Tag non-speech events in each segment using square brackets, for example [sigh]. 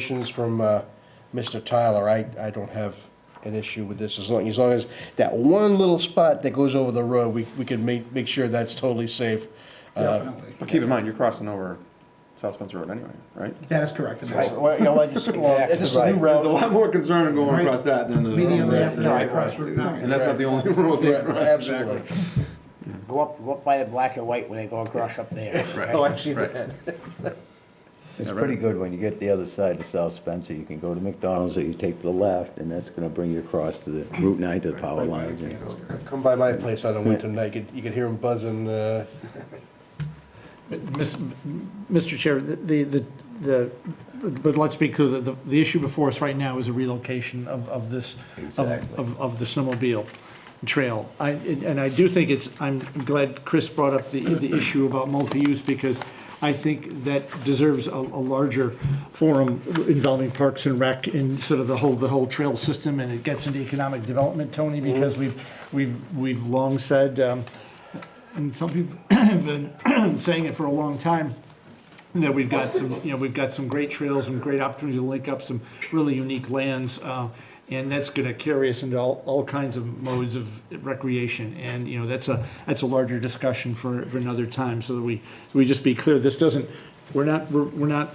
Questions from uh, Mr. Tyler, I, I don't have an issue with this, as long, as long as that one little spot that goes over the road, we, we can make, make sure that's totally safe. Uh, Definitely. But keep in mind, you're crossing over South Spencer Road anyway, right? That is correct. and that's- Well, you know, I just, well, this is a new Exactly. There's a route. lot more concern in going across that than the. Median left the- and right across Route nine. And that's not the only [laughs] road they Right, cross. Absolutely. exactly. Go up, go up by the black and white when they go across up there. Oh, I've seen that. It's pretty good when you get the other side of South Spencer, you can go to McDonald's or you take the left, and that's gonna bring you across to the Route 9 to the power line. yeah. Come by my place on a winter night, you could, you could hear them buzzing, uh, Mis- Mr. Chair, the, the, the but let's be clear, the, the issue before us right now is a relocation of, of this, of, Exactly. of- of the snowmobile trail. I, and I do think it's, I'm glad Chris brought up the, the issue about multi-use, because I think that deserves a, a larger forum involving Parks and Rec and sort of the whole, the whole trail system, and it gets into economic development, Tony, because we've, we've, we've long said, um, and some people [clears throat] have been [clears throat] saying it for a long time, that we've got some, you know, we've got some great trails and great opportunities to link up some really unique lands. uh, And that's going to carry us into all, all kinds of modes of recreation. And, you know, that's a, that's a larger discussion for, for another time, so that we, we just be clear, this doesn't, we're not, we're we're not,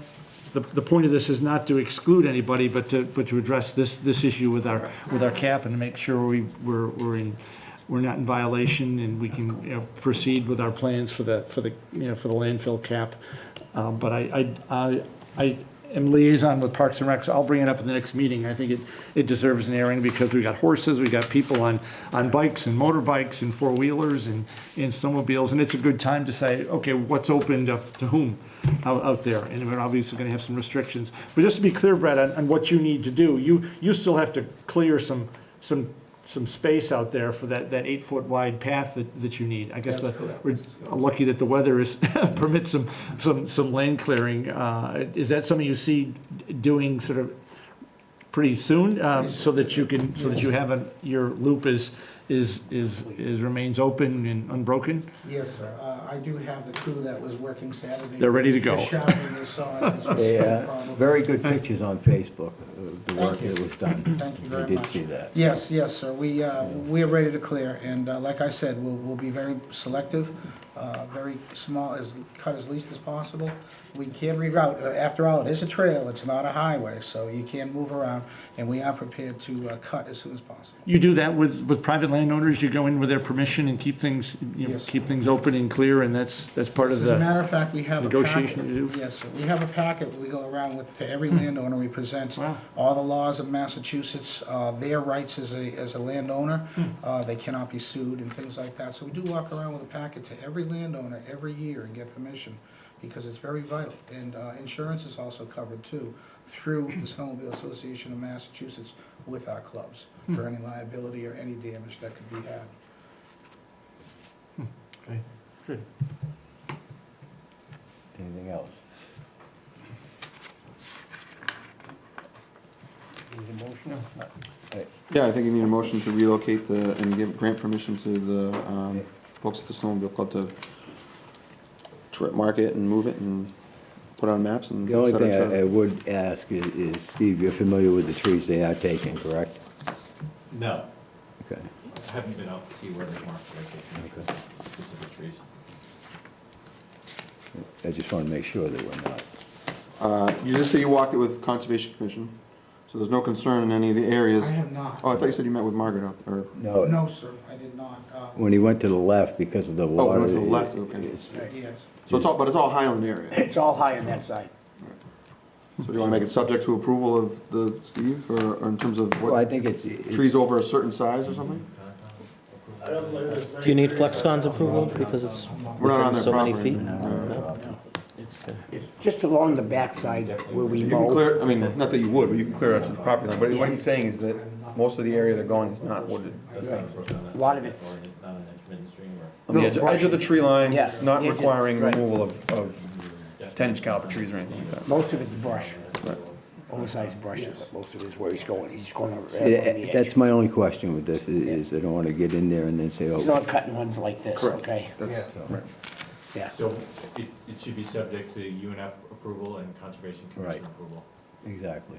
the, the point of this is not to exclude anybody, but to, but to address this, this issue with our, with our cap and make sure we, we're, we're in, we're not in violation and we can, you know, proceed with our plans for the, for the, you know, for the landfill cap. Um, But I, I, I- I am liaison with Parks and Recs. I'll bring it up in the next meeting. I think it, it deserves an airing because we got horses, we got people on, on bikes and motorbikes and four-wheelers and, and snowmobiles. And it's a good time to say, okay, what's opened up to whom out, out there? And we're obviously going to have some restrictions. But just to be clear, Brad, on, on what you need to do, you, you still have to clear some, some, some space out there for that, that eight-foot wide path that, that you need. I guess the- we're lucky that the weather is, [laughs] permits some, some, some land clearing. Uh, Is that something you see doing sort of pretty soon, um, so that you can, so that you have a, your loop is, is, is, is, remains open and unbroken? Yes, sir. Uh, I do have the crew that was working Saturday. They're ready to go. They're shopping, they saw it. [laughs] It's a They, uh, problem. very good pictures on Facebook, of the work Thank you. that was done. Thank you very much. I did see that. Yes, yes, sir. We, uh, we are ready to clear, and uh, like I said, we'll, we'll be very selective, uh, very small, as, cut as least as possible. We can reroute, Uh, after all, it is a trail, it's not a highway, so you can move around, and we are prepared to uh, cut as soon as possible. You do that with, with private landowners, you go in with their permission and keep things, you know, Yes. keep things open and clear, and that's, that's part of As a the, matter of fact, we have a packet. negotiation to do? Hmm. Yes, sir. we have a packet we go around with to every landowner. We present Wow. all the laws of Massachusetts, uh, their rights as a, as a landowner. Hmm. uh, They cannot be sued and things like that. So we do walk around with a packet to every landowner every year and get permission because it's very vital. And uh, insurance is also covered too through the Hmm. Snowmobile Association of Massachusetts with our clubs Hmm. for any liability or any damage that could be had. Anything else? Yeah, I think you need a motion to relocate the, and give grant permission to the, um, folks at the snowmobile club to tr- mark it and move it and put on maps and The et only cetera, thing et I I cetera. would ask is, is, Steve, you're familiar with the trees they are taking, correct? No, Okay. I haven't been out to see where they marked vacation, just the trees. I just want to make sure that we're not. Uh, you just say you walked it with Conservation Commission, so there's no concern in any of the areas. I have not. Oh, I thought you said you met with Margaret out there. No, No, sir, I did not. Uh, when he went to the left because of the Oh, went water. to the it- left, okay. it's- Yes. So it's all, but it's all Highland area. It's all high on that side. So do you wanna make it subject to approval of the, Steve, or, or in terms of Well, I what, think it's. it- trees over a certain size or something? Do you need Flexcon's approval because it's We're not on within their so many property. Uh, feet? no. It's just along the backside where we You can mow. clear, I mean, not that you would, but you can clear up to the property line, but what he's saying is that most of the area they're going is not wooded. That's not approved on that. A lot of side, it's- or Not an intermittent stream or. On the edge, edge of the tree line, Yeah. not Yeah, just- requiring right. removal of, of ten-inch caliber trees or anything like that. Most of it's brush, oversized brushes, but most of it's where he's going. He's going over See, there on eh, the That's edge. my only question with this, i- is I don't want to get in there and then say, He's oh, not cutting ones like this, okay? That's, right. Yeah. So it, it should be subject to UNF approval and Conservation Commission Right. approval. Exactly.